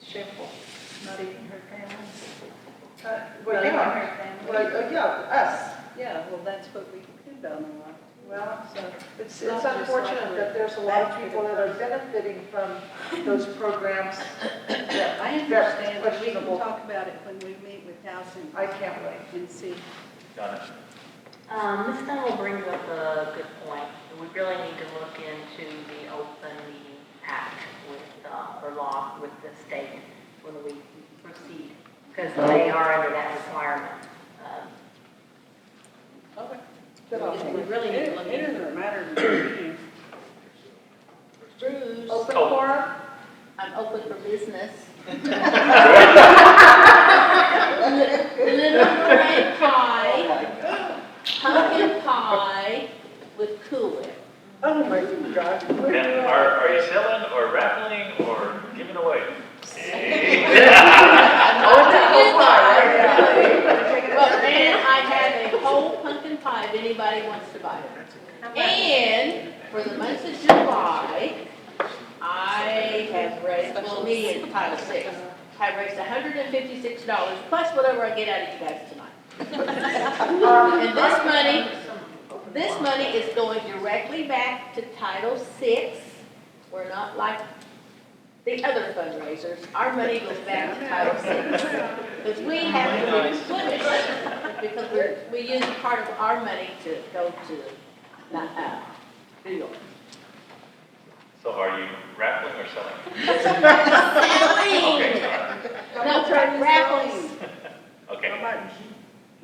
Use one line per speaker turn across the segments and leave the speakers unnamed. people, not even her family.
Uh,
Not
Well,
even
yeah,
her family.
well, uh, yeah, us.
Yeah, well, that's what we depend on a lot.
Well,
So,
it's,
Not
it's
just like
unfortunate
we're
that there's a lot of people that are benefiting from those programs. that
I
that's
understand, but we can
questionable.
talk about it when we meet with Housing
I can't wait.
and see.
Got it.
Um, Ms. Dunn brings up a good point. We really need to look into the open meeting act with, uh, or law with the state when we proceed, because they are under that requirement. Um,
Good on
We
you.
really need to look into
a matter of review.
Bruce,
Open
Oh.
forum?
I'm open for business. Little
Um,
red pie, pumpkin pie with Cool Whip.
Oh, my God. Where
Now,
you
are,
are?
are you selling or raffling or giving away?
Oh, it's a whole pie,
Well,
yeah.
then I have a whole pumpkin pie if anybody wants to buy it. And for the month of July, I have raised, well, me and Title Six, have raised hundred and fifty-six dollars plus whatever I get out of you guys tonight.
Um,
And this money, this money is going directly back to Title VI. We're not like the other fundraisers. Our money goes back to Title VI. Because we have to replenish, because we're, we use part of our money to go to, uh, New York.
So are you raffling or selling?
Selling!
Okay, got it.
No, raffles,
okay,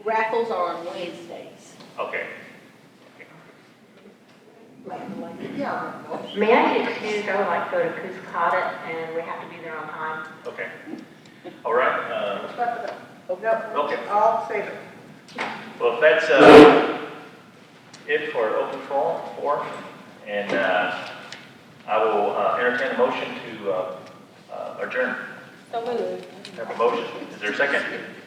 raffles are on Wednesdays.
okay.
Yeah.
May I get excused? I would like to go to Cuscata and we have to be there on time.
Okay. All right, uh,
No,
Okay.
I'll save it.
Well, if that's uh, it for open forum, forum, and uh, I will uh, entertain a motion to uh, uh, adjourn. So Have a motion. Is there a second?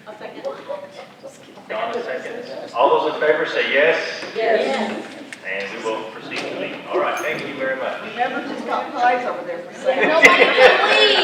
I'll second.
Dawn, a second. All those in favor say yes,
Yes.
and we will proceed to leave. All right, thank you very much.
Remember, just got pies over there for sale.
Nobody can leave.